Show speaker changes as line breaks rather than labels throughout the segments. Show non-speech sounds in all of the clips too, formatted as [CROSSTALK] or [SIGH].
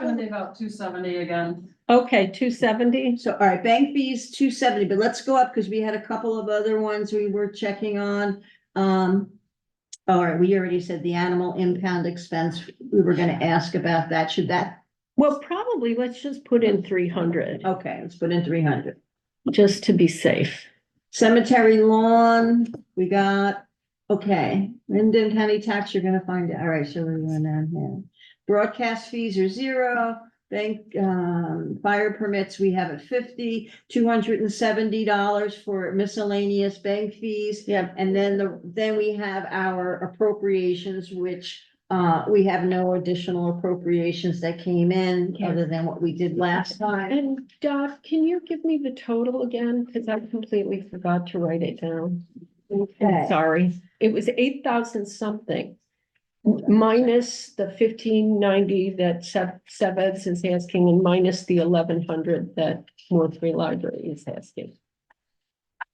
think about two seventy again.
Okay, two seventy,
So, all right, bank fees, two seventy, but let's go up because we had a couple of other ones we were checking on. Um, all right, we already said the animal impound expense. We were gonna ask about that. Should that,
well, probably, let's just put in three hundred,
okay, let's put in three hundred.
just to be safe.
Cemetery lawn, we got, okay, Linden County tax, you're gonna find it. All right, so we're going down here. Broadcast fees are zero. Bank, um, fire permits, we have a fifty, two hundred and seventy dollars for miscellaneous bank fees.
Yeah.
And then the, then we have our appropriations, which, uh, we have no additional appropriations that came in other than what we did last time.
And Dot, can you give me the total again? Cause I completely forgot to write it down. I'm
Okay.
sorry, it was eight thousand something. Minus the fifteen ninety that Seb, Seb's is asking and minus the eleven hundred that Northbury Library is asking.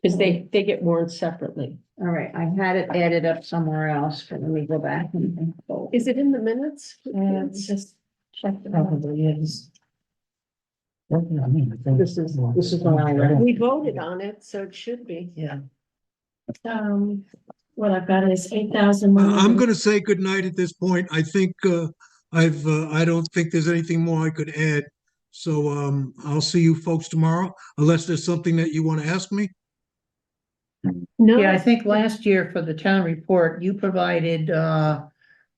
Cause they, they get warned separately.
All right, I had it added up somewhere else, but let me go back and. and go.
Is it in the minutes?
just check. Probably is. This is,
this is what I read.
We voted on it, so it should be.
Yeah.
Um, what I've got is eight thousand.
I-
uh,
I'm going to say goodnight at this point. I think uh, I've, uh, I don't think there's anything more I could add. So um, I'll see you folks tomorrow unless there's something that you want to ask me.
Yeah, I
No,
think last year for the town report, you provided, uh,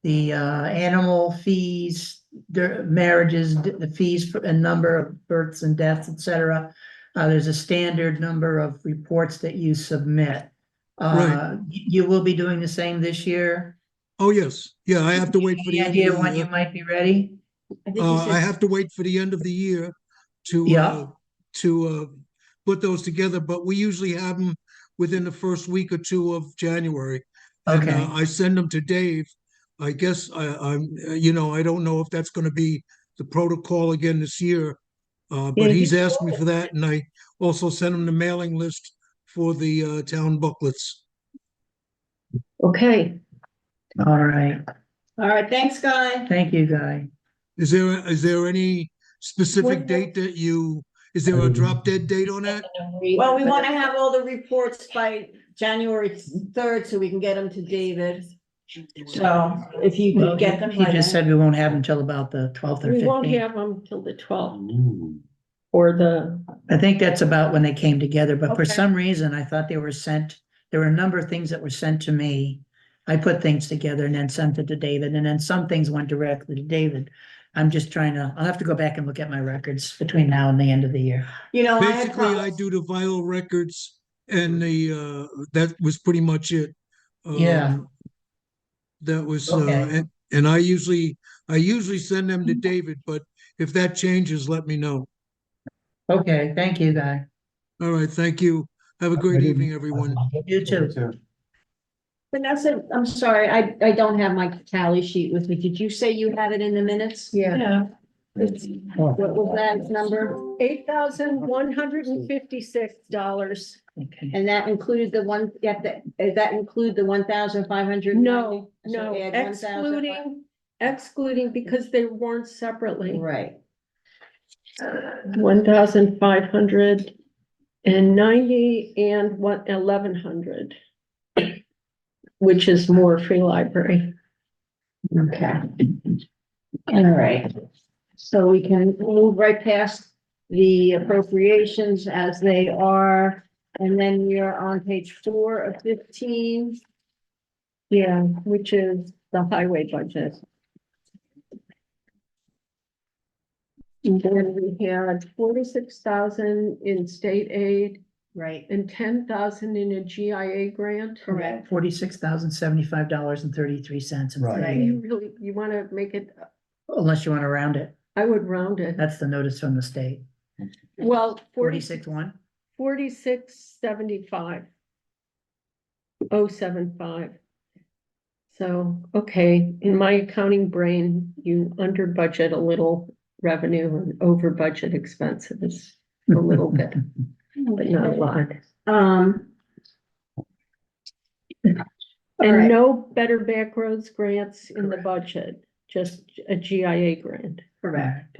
the, uh, animal fees, their marriages, the fees for a number of births and deaths, et cetera. Uh, there's a standard number of reports that you submit. Uh, y- you will be doing the same this year?
Oh, yes. Yeah, I have to wait for the.
Any
end
idea
of the
when
year.
you might be ready?
I think you
Uh, I
should-
have to wait for the end of the year to,
Yeah.
uh, to, uh, put those together, but we usually have them within the first week or two of January. And,
Okay.
uh, I send them to Dave. I guess I, I'm, uh, you know, I don't know if that's gonna be the protocol again this year. Uh,
Yeah,
but he's
he's
asked me for that and I also sent him the mailing list for the, uh, town booklets.
okay,
All right.
All right, thanks, Guy.
Thank you, Guy.
Is there, is there any specific date that you, is there a drop dead date on that?
Well, we want to have all the reports by January third so we can get them to David. So if you
Well,
could get them
He
by
just
then.
said we won't have until about the twelfth or
we won't
fifteenth.
have them till the twelfth. Or the,
I think that's about when they came together, but for
Okay.
some reason I thought they were sent, there were a number of things that were sent to me. I put things together and then sent it to David, and then some things went directly to David. I'm just trying to, I'll have to go back and look at my records between now and the end of the year.
You know, I had
Basically, I
promised,
do the vinyl records and the, uh, that was pretty much it.
Yeah.
Um, That was, uh,
Okay.
and, and I usually, I usually send them to David, but if that changes, let me know.
Okay, thank you, Guy.
All right, thank you. Have a great evening, everyone.
You too.
Vanessa, I'm sorry, I, I don't have my tally sheet with me. Did you say you had it in the minutes?
yeah,
Yeah,
What was that number?
eight thousand one hundred and fifty-six dollars.
Okay.
And that included the one, yeah, that, does that include the one thousand five hundred?
No, no, excluding, excluding because they weren't separately.
Right.
One thousand five hundred and ninety and what, eleven hundred. Which is more free library.
Okay. All right. So we can move right past the appropriations as they are. And then we are on page four of fifteen.
Yeah, which is the highway budget. And then we had forty-six thousand in state aid
Right.
and ten thousand in a GIA grant.
Correct.
Forty-six thousand seventy-five dollars and thirty-three cents.
You really, you wanna make it,
Unless you want to round it.
I would round it.
That's the notice from the state.
Well, forty-six,
Forty-six one.
forty-six seventy-five. Oh, seven five. So, okay, in my accounting brain, you under budget a little revenue and over budget expenses a little [LAUGHS] bit, but not a lot.
Um.
And
Alright.
no better back roads grants in the budget, just a GIA grant.
Correct.